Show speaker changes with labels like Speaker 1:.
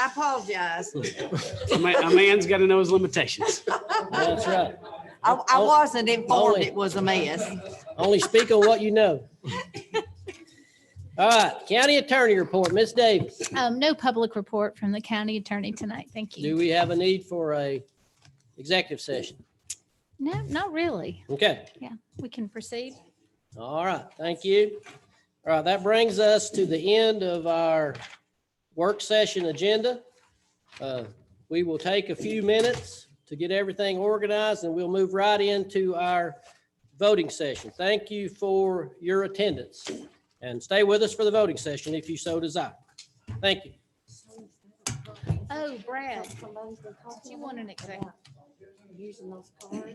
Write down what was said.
Speaker 1: I apologize.
Speaker 2: A man, a man's got to know his limitations.
Speaker 3: That's right.
Speaker 1: I, I
Speaker 3: Oh,
Speaker 1: wasn't informed
Speaker 3: Ollie.
Speaker 1: it was a mess.
Speaker 3: Only speak on what you know. All right, county attorney report, Ms. Davis.
Speaker 4: Um, no public report from the county attorney tonight. Thank
Speaker 3: Do
Speaker 4: you.
Speaker 3: we have a need for a executive session?
Speaker 4: No, not really.
Speaker 3: Okay,
Speaker 4: We can proceed.
Speaker 3: all right, thank you. All right, that brings us to the end of our work session agenda. Uh, We will take a few minutes to get everything organized and we'll move right into our voting session. Thank you for your attendance and stay with us for the voting session if you so desire. Thank you.
Speaker 4: Oh, Brad, you want an executive?
Speaker 5: Using those cards.